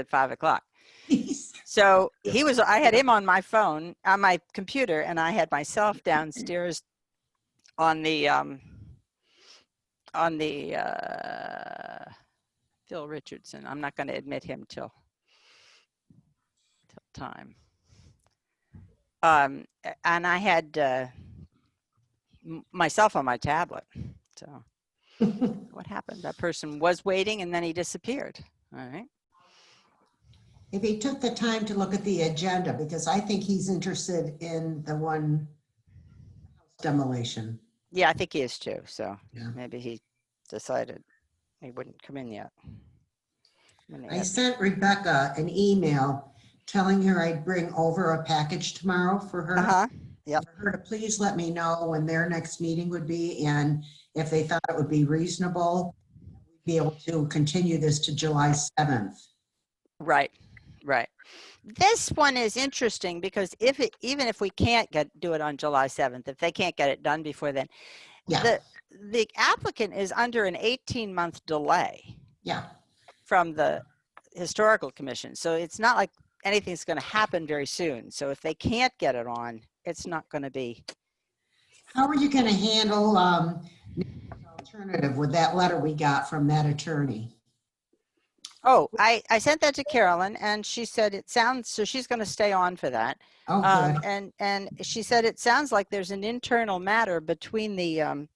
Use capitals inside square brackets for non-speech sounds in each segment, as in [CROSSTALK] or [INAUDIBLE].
at five o'clock. So he was, I had him on my phone, on my computer, and I had myself downstairs on the, um, on the, uh, Phil Richardson. I'm not going to admit him till, till time. Um, a- and I had, uh, m- myself on my tablet. So what happened? That person was waiting and then he disappeared. All right. If he took the time to look at the agenda, because I think he's interested in the one demolition. Yeah, I think he is too. So Yeah. maybe he decided he wouldn't come in yet. When they I had- sent Rebecca an email telling her I'd bring over a package tomorrow for her. Uh-huh. yep. For her to please let me know when their next meeting would be and if they thought it would be reasonable, be able to continue this to July 7th. Right, right. This one is interesting because if it, even if we can't get, do it on July 7th, if they can't get it done before then, Yeah, the, the applicant is under an 18-month delay yeah, from the Historical Commission. So it's not like anything's going to happen very soon. So if they can't get it on, it's not going to be, How are you going to handle um, alternative with that letter we got from that attorney? oh, I, I sent that to Carolyn and she said it sounds, so she's going to stay on for that. Oh, Um, good. and, and she said, it sounds like there's an internal matter between the, um,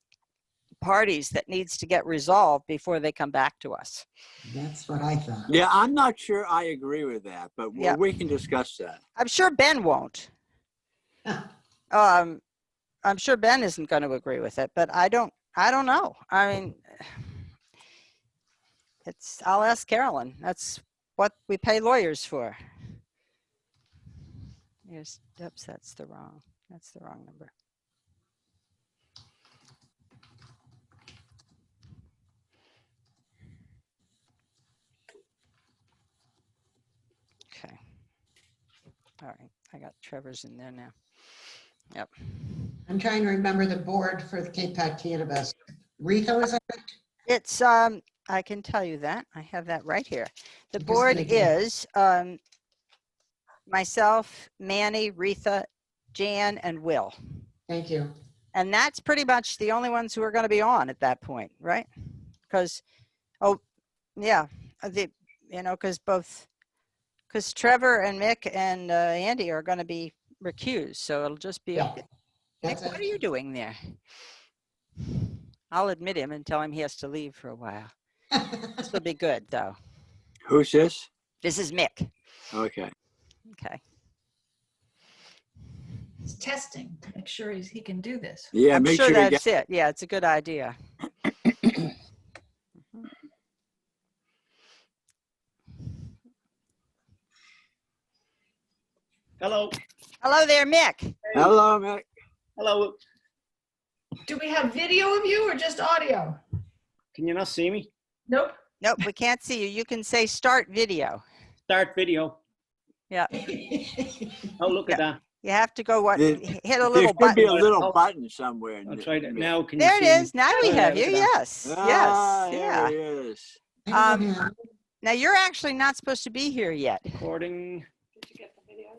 parties that needs to get resolved before they come back to us. That's what I thought. Yeah, I'm not sure I agree with that, but we- Yeah. we can discuss that. I'm sure Ben won't. Um, I'm sure Ben isn't going to agree with it, but I don't, I don't know. I mean, [SIGHS] it's, I'll ask Carolyn. That's what we pay lawyers for. Yes, oops, that's the wrong, that's the wrong number. Okay. All right, I got Trevor's in there now. Yep. I'm trying to remember the board for the Cape Cod Cannabis. Rico is on it? It's, um, I can tell you that. I have that right here. The Just board thinking. is, um, myself, Manny, Retha, Jan, and Will. Thank you. And that's pretty much the only ones who are going to be on at that point, right? Because, oh, yeah, uh, the, you know, because both, because Trevor and Mick and, uh, Andy are going to be recused, so it'll just be, Yeah. Mick, That's what are it. you doing there? I'll admit him and tell him he has to leave for a while. [LAUGHS] This will be good, though. Who's this? This is Mick. Okay. Okay. It's testing, make sure he's, he can do this. Yeah, I'm make sure sure you get, that's it. Yeah, it's a good idea. Mhm. Hello, Hello there, Mick. hello, Mick. hello. Do we have video of you or [LAUGHS] just audio? Can you not see me? Nope. Nope, we can't see you. You can say start video. Start video. Yeah. Oh, look at that. You have to go what There- hit a There little should be button. Oh. a little button somewhere. in I'll the- try that now. Can you There it see me? is. Now we Yeah, have you. look at that. Yes. Yes. Ah, there Yeah. he is. I don't Um, know. Now you're actually not supposed to be here yet. Recording.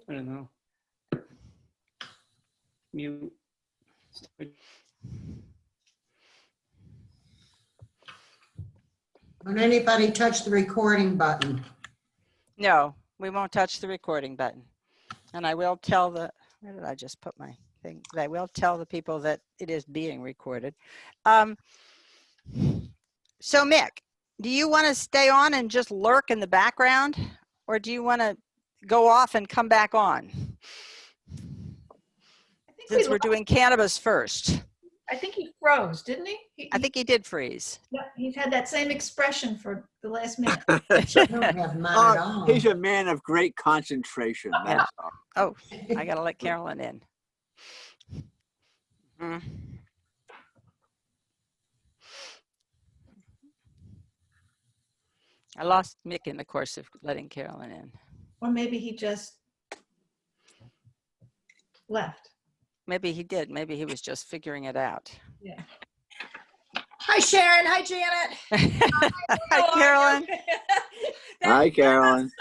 I don't know. Mute. Don't anybody touch the recording [LAUGHS] button. No, we won't touch the recording button. And I will tell the, where did I just put my thing? I will tell the people that it is being recorded. Um, So Mick, do you want to stay on and just lurk in the background? Or do you want to go off and come back on? I think we Since we're lost- doing cannabis first. I think he froze, didn't he? He- I think he did freeze. he- He's had that same expression for the [LAUGHS] last minute. I don't have mine at all. Uh, He's a man of great concentration, Oh, that's all. [LAUGHS] I gotta let Carolyn in. Mm. I lost Mick in the course of letting Carolyn in. Or maybe he just left. Maybe he did. Maybe he was just figuring it out. Hi Sharon, hi Janet. Oh, [LAUGHS] Hi, Carolyn. That Hi, Carolyn.